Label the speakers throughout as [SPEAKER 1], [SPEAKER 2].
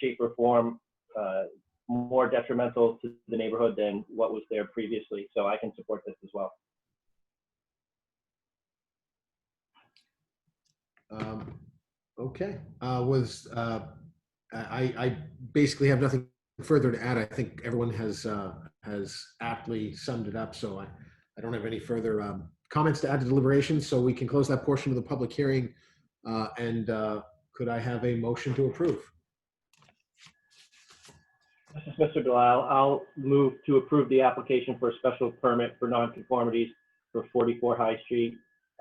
[SPEAKER 1] shape, or form uh, more detrimental to the neighborhood than what was there previously. So I can support this as well.
[SPEAKER 2] Um, Okay, uh, was, uh, I, I basically have nothing further to add. I think everyone has, uh, has aptly summed it up, so I, I don't have any further um, comments to add to deliberations, so we can close that portion of the public hearing. Uh, And uh, could I have a motion to approve?
[SPEAKER 1] This is Mr. Delisle. I'll move to approve the application for a special permit for nonconformities for 44 High Street,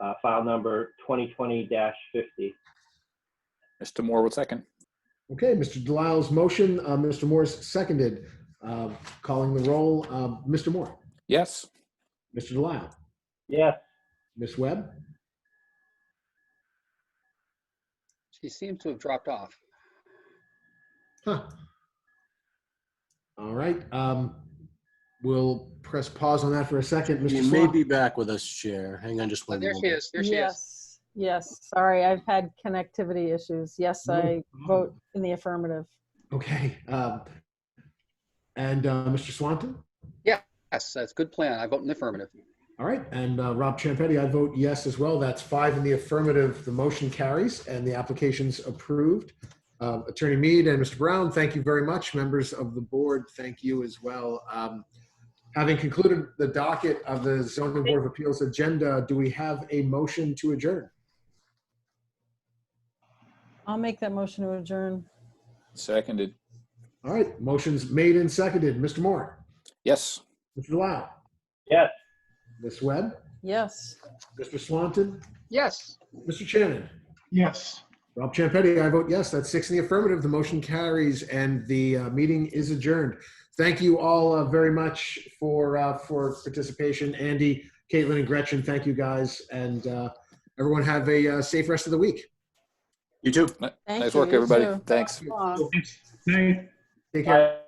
[SPEAKER 1] uh, file number 2020-50.
[SPEAKER 3] Mr. Moore will second.
[SPEAKER 2] Okay, Mr. Delisle's motion, uh, Mr. Moore's seconded, Uh, calling the roll. um, Mr. Moore,
[SPEAKER 3] Yes.
[SPEAKER 2] Mr. Delisle,
[SPEAKER 1] Yes,
[SPEAKER 2] Ms. Webb,
[SPEAKER 4] She seems to have dropped off.
[SPEAKER 2] Huh. All right. Um, we'll press pause on that for a second. Mr.
[SPEAKER 5] You may
[SPEAKER 2] Slot,
[SPEAKER 5] be back with us, Chair. Hang on just
[SPEAKER 4] Oh,
[SPEAKER 5] one
[SPEAKER 4] there she
[SPEAKER 5] moment.
[SPEAKER 4] is. There she is.
[SPEAKER 6] Yes, yes, sorry, I've had connectivity issues. Yes,
[SPEAKER 2] No
[SPEAKER 6] I
[SPEAKER 2] problem.
[SPEAKER 6] vote in the affirmative.
[SPEAKER 2] Okay. Um, and uh, Mr. Swanton?
[SPEAKER 4] Yes, that's a good plan. I vote in the affirmative.
[SPEAKER 2] All right. And uh, Rob Champetti, I vote yes as well. That's five in the affirmative. The motion carries and the application's approved. Uh, Attorney Mead and Mr. Brown, thank you very much. Members of the board, thank you as well. Um, having concluded the docket of the Zoning Board of Appeals agenda, do we have a motion to adjourn?
[SPEAKER 6] I'll make that motion to adjourn.
[SPEAKER 3] Seconded.
[SPEAKER 2] All right, motions made and seconded. Mr. Moore,
[SPEAKER 3] Yes.
[SPEAKER 2] Mr. Delisle,
[SPEAKER 1] yes.
[SPEAKER 2] Ms. Webb,
[SPEAKER 6] Yes.
[SPEAKER 2] Mr. Swanton,
[SPEAKER 4] Yes.
[SPEAKER 2] Mr. Shannon.
[SPEAKER 7] Yes.
[SPEAKER 2] Rob Champetti, I vote yes. That's six in the affirmative. The motion carries and the uh, meeting is adjourned. Thank you all uh, very much for, uh, for participation. Andy, Caitlin, and Gretchen, thank you guys. And uh, everyone have a uh, safe rest of the week.
[SPEAKER 5] You too.
[SPEAKER 3] Ni-
[SPEAKER 6] Thank
[SPEAKER 3] Nice
[SPEAKER 6] you,
[SPEAKER 3] work,
[SPEAKER 6] you
[SPEAKER 3] everybody.
[SPEAKER 6] too.
[SPEAKER 3] Thanks.
[SPEAKER 6] Come on.
[SPEAKER 7] Night.
[SPEAKER 2] Take care.
[SPEAKER 1] I-